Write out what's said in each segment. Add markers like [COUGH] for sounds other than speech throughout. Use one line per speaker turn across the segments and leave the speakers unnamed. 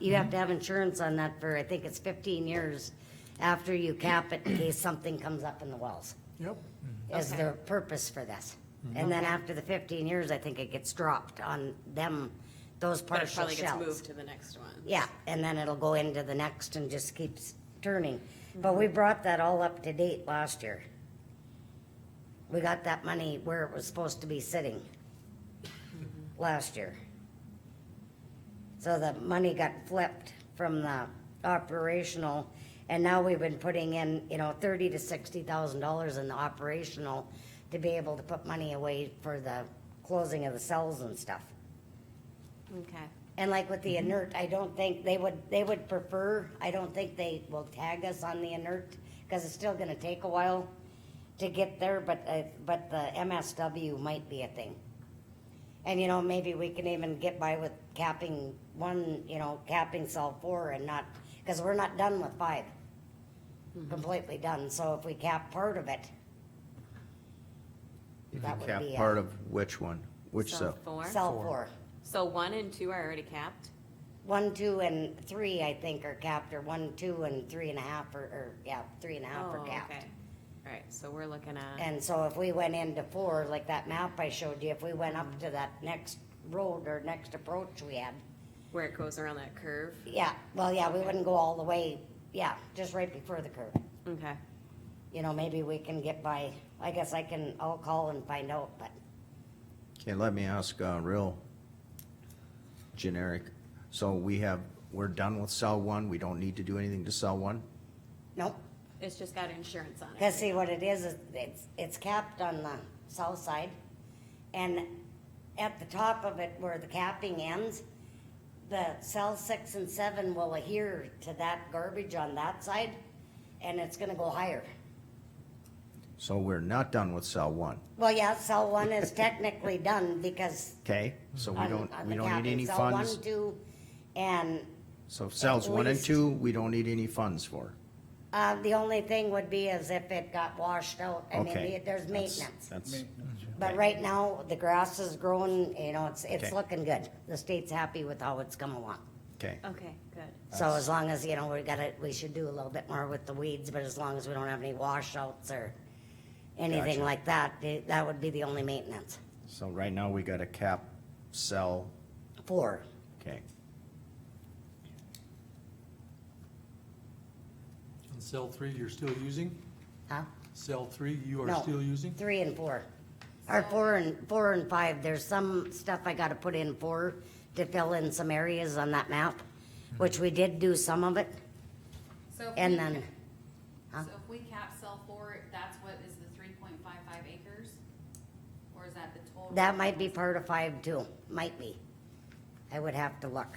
You
Mm-hmm.
have to have insurance on that for, I think it's fifteen years after you cap it in case something comes up in the wells,
Yep.
is
Okay.
the purpose for this. And then after the fifteen years, I think it gets dropped on them, those
But it
partial
probably gets
shells.
moved to the next one.
Yeah, and then it'll go into the next and just keeps turning. But we brought that all up to date last year. We got that money where it was supposed to be sitting last year. So the money got flipped from the operational, and now we've been putting in, you know, thirty to sixty thousand dollars in the operational to be able to put money away for the closing of the cells and stuff.
Okay.
And like with the inert, I don't think they would, they would prefer, I don't think they will tag us on the inert, cause it's still gonna take a while to get there, but, uh, but the MSW might be a thing. And you know, maybe we can even get by with capping one, you know, capping cell four and not, cause we're not done with five. Completely done, so if we cap part of it,
You
That
can
would
cap
be a-
part of which one, which
So
cell?
Four?
cell four.
So one and two are already capped?
One, two, and three, I think, are capped, or one, two, and three and a half, or, or, yeah, three and a half are
Oh,
capped.
okay. Uh-huh. All right, so we're looking at,
And so if we went into four, like that map I showed you, if we went
Mm-hmm.
up to that next road or next approach we had,
where it goes around that curve?
yeah, well, yeah, we wouldn't go all the way, yeah, just right before the curve.
Okay.
You know, maybe we can get by, I guess I can, I'll call and find out, but,
Okay, let me ask, uh, real generic. So we have, we're done with cell one, we don't need to do anything to cell one?
nope.
It's just got insurance on it.
Cause see, what it is, is it's, it's capped on the south side, and at the top of it where the capping ends, the cell six and seven will adhere to that garbage on that side, and it's gonna go higher.
So we're not done with cell one,
Well, yeah, cell one
[LAUGHS]
is technically done because
okay? So we
on,
don't,
on
we
the
don't need
capping,
any
cell one,
funds.
two, and,
So cells one and
least-
two, we don't need any funds for.
uh, the only thing would be is if it got washed out, I mean,
Okay.
the- there's
That's-
maintenance.
That's,
But right now, the grass is growing, you know, it's, it's
Okay.
looking good. The state's happy with how it's come along.
okay,
Okay, good.
So as long as, you know, we gotta, we should do a little bit more with the weeds, but as long as we don't have any washouts or anything
Gotcha.
like that, eh, that would be the only maintenance.
so right now we got a cap cell,
Four,
okay,
And cell three, you're still using?
huh?
Cell three, you
No.
are still using?
Three and four. Or four and, four and five, there's some stuff I gotta put in four to fill in some areas on that map, which we did do some of it,
So if
and
we
then, uh,
ca- So if we cap sell four, that's what is the three point five five acres? Or is that the total?
that might be part of five too, might be. I would have to look.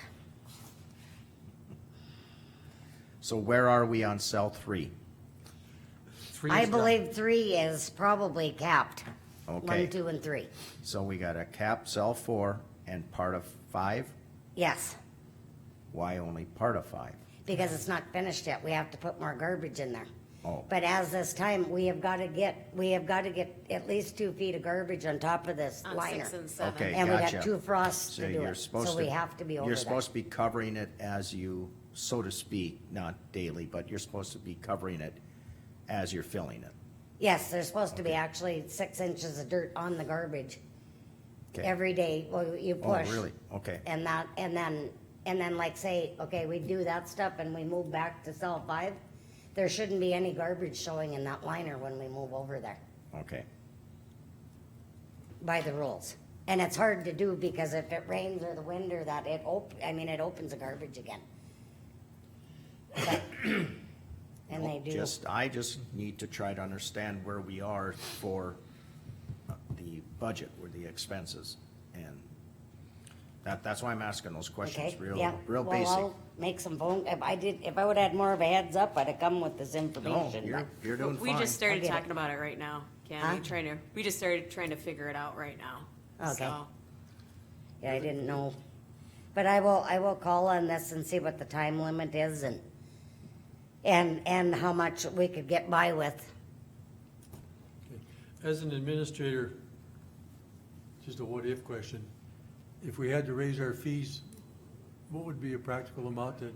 so where are we on cell three?
Three
I
is done.
believe three is probably capped.
Okay.
One, two, and three.
So we got a cap cell four and part of five,
Yes,
why only part of five?
because it's not finished yet. We have to put more garbage in there.
Oh.
But as this time, we have got to get, we have got to get at least two feet of garbage on top of this
On
liner.
six and seven.
Okay,
And we got
gotcha.
two frosts
So
to do
you're
it,
supposed
so
to.
we have to be over
You're
that.
supposed to be covering it as you, so to speak, not daily, but you're supposed to be covering it as you're filling it.
Yes, there's supposed to be
Okay.
actually six inches of dirt on the garbage
Okay.
every day, well, you
Oh,
push.
really? Okay,
And that, and then, and then like say, okay, we do that stuff and we move back to cell five, there shouldn't be any garbage showing in that liner when we move over there,
okay.
by the rules. And it's hard to do because if it rains or the wind or that, it op, I mean, it opens the garbage again. But- And they
Well,
do,
Just, I just need to try to understand where we are for uh, the budget or the expenses. And that, that's why I'm asking those questions,
okay,
real,
yeah.
real
Well,
basic.
I'll Make some phone, if I did, if I would've had more of a heads up, I'd have come with this
No,
information,
you're,
but-
you're doing
We
fine.
just started
get it.
talking about it right now, Ken.
Huh?
We trying to, we just started trying to figure it out right now.
Okay.
So,
Yeah, I didn't know. But I will, I will call on this and see what the time limit is and, and, and how much we could get by with.
Okay. As an administrator, just a what-if question, if we had to raise our fees, what would be a practical amount that